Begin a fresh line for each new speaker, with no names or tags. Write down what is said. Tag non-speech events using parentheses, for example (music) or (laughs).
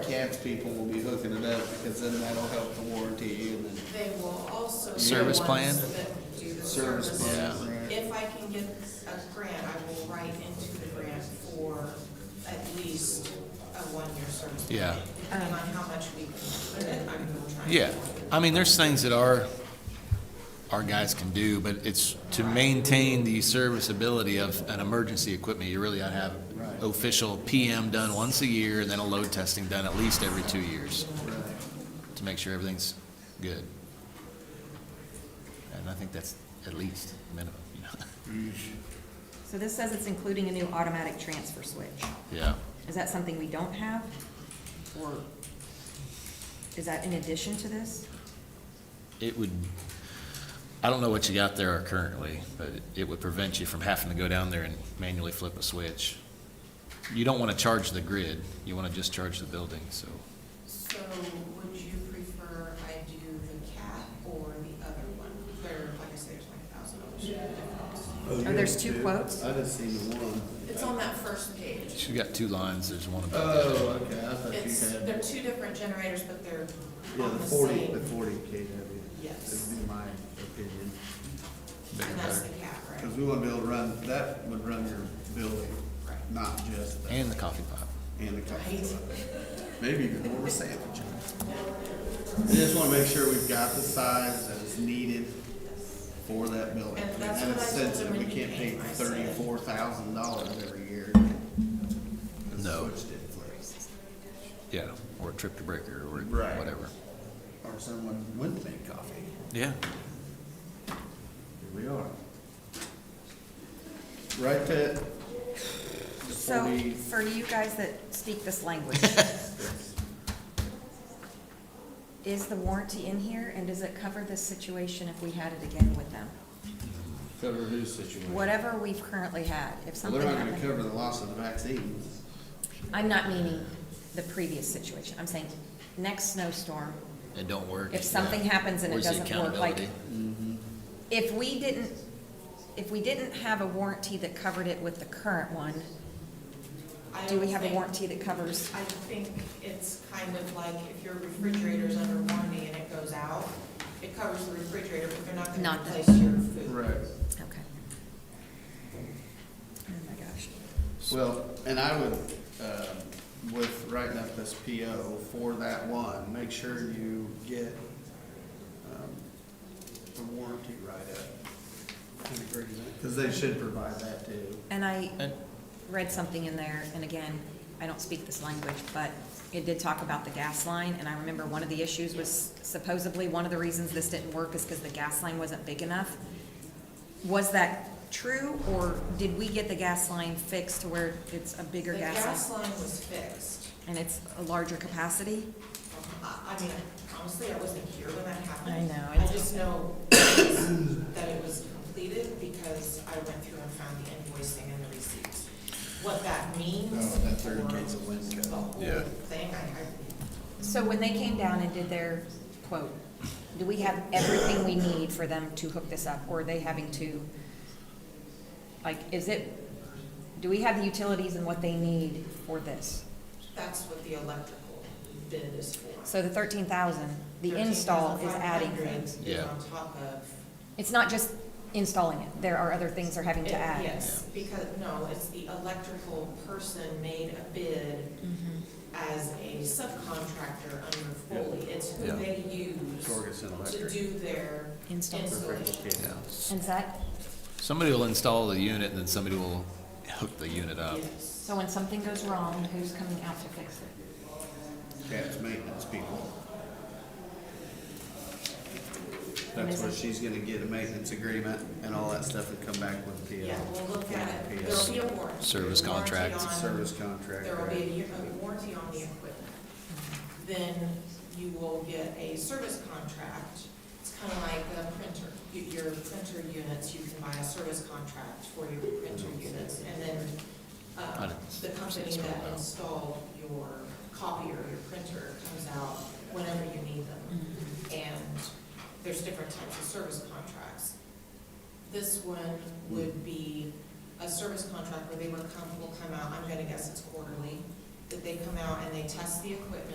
Stamps people will be hooking it up, because then that'll help the warranty and then.
They will also. be
Service
the
plan?
ones that Do the
Service
service.
plan, right.
If I can get a grant, I will write into the grant for at least a one-year service. plan,
Yeah.
Depending on how much we can put in, I'm gonna try.
Yeah, I mean, there's things that our, our guys can do, but it's to maintain the serviceability of an emergency equipment, you really ought to have
Right.
official PM done once a year, and then a load testing done at least every two years, to make sure everything's good. And I think that's at least minimum, you know? (laughs)
So this says it's including a new automatic transfer switch.
Yeah,
Is that something we don't have? Or is that in addition to this?
it would, I don't know what you got there currently, but it would prevent you from having to go down there and manually flip a switch. You don't want to charge the grid, you want to just charge the building, so.
So would you prefer I do the cat or the other one? There, like I said, there's like a thousand dollars.
Oh,
there's two quotes?
I just seen the one.
It's on that first page.
She got two lines, there's one above the other.
Oh, okay, I thought you
It's,
had,
they're two different generators, but they're
yeah,
on
the
the
forty, the
same.
forty KW.
Yes.
Would be my opinion,
bigger,
And that's the
better.
cat, right?
because we want to be able to run, that would run your building,
Right.
not just the-
And the coffee pot.
and the coffee
Right.
shop. Maybe even more of a sandwich. I just want to make sure we've got the size that is needed for that building.
And
And
that's
that is
what I told
sensitive.
them
We
when you
can't pay
came, I said-
thirty-four thousand dollars every year.
No.
Switched it for-
Yeah, or a trip to breaker, or
Right.
whatever.
Or someone wouldn't make coffee.
Yeah.
Here we are. Right, Ted?
So
Forty-
for you guys that speak this language,
(laughs)
is the warranty in here and does it cover this situation if we had it again with them?
Cover whose situation?
Whatever we've currently had, if
Well,
something
they're not gonna
happened.
cover the loss of the vaccines.
I'm not meaning the previous situation. I'm saying next snowstorm,
It don't work.
If something
yeah.
happens and it
Where's the
doesn't work, like-
accountability?
if we didn't, if we didn't have a warranty that covered it with the current one,
I
do we
don't
have a
think-
warranty that covers?
I think it's kind of like if your refrigerator's under warranty and it goes out, it covers the refrigerator, but they're not gonna
Not the-
replace your food.
Okay. Oh my gosh.
Well, and I would, um, with writing up this PO for that one, make sure you get um, the warranty write-up. and agreement, Because they should provide that too.
And I
And-
read something in there, and again, I don't speak this language, but it did talk about the gas line, and I remember one of the issues was supposedly one of the reasons this didn't work is because the gas line wasn't big enough. Was that true, or did we get the gas line fixed to where it's a bigger
The
gas
gas
line?
line was fixed.
And it's a larger capacity?
I, I mean, honestly, I wasn't here when that happened.
I know,
I
it's-
just know that it was completed because I went through and found the invoicing and the receipts. What that means.
Oh, that thirty
for
days of wind cut.
The whole
Yeah.
thing, I,
So when they came down and did their quote, do we have everything we need for them to hook this up, or are they having to, like, is it, do we have the utilities and what they need for this?
I, that's what the electrical bid is for.
So the thirteen thousand, the install is adding
13,500
things.
is
Yeah.
On top of.
It's not just installing it, there are other things they're having
It-
to add.
Yes, because, no, it's the electrical person made a bid
Mm-hmm.
as a subcontractor under Foley. It's who
Yeah.
they use
Torgerson
to
Electric.
do their
Install.
installation.
Yeah.
And is that,
Somebody will install the unit, and then somebody will hook the unit up.
Yes.
so when something goes wrong, who's coming out to fix it?
Cat's maintenance people.
And
That's
is
where
it-
she's gonna get a maintenance agreement and all that stuff and come back with uh, PO.
Yeah, we'll look at
Yeah.
it. There'll be a warranty.
Service
Warranty
contract.
on-
Service contract.
There will
right?
be a year- a warranty on the equipment. Then you will get a service contract. It's kind of like a printer. You- Your printer units, you can buy a service contract for your printer
Mm-hmm.
units. And then
I
uh,
didn't
the company
see it
that
spelled out.
installed your copier, your printer comes out whenever you need them.
Mm-hmm.
And there's different types of service contracts. This one would be a service contract where they would come, will come out, I'm gonna guess it's quarterly, that they come out and they test the equipment.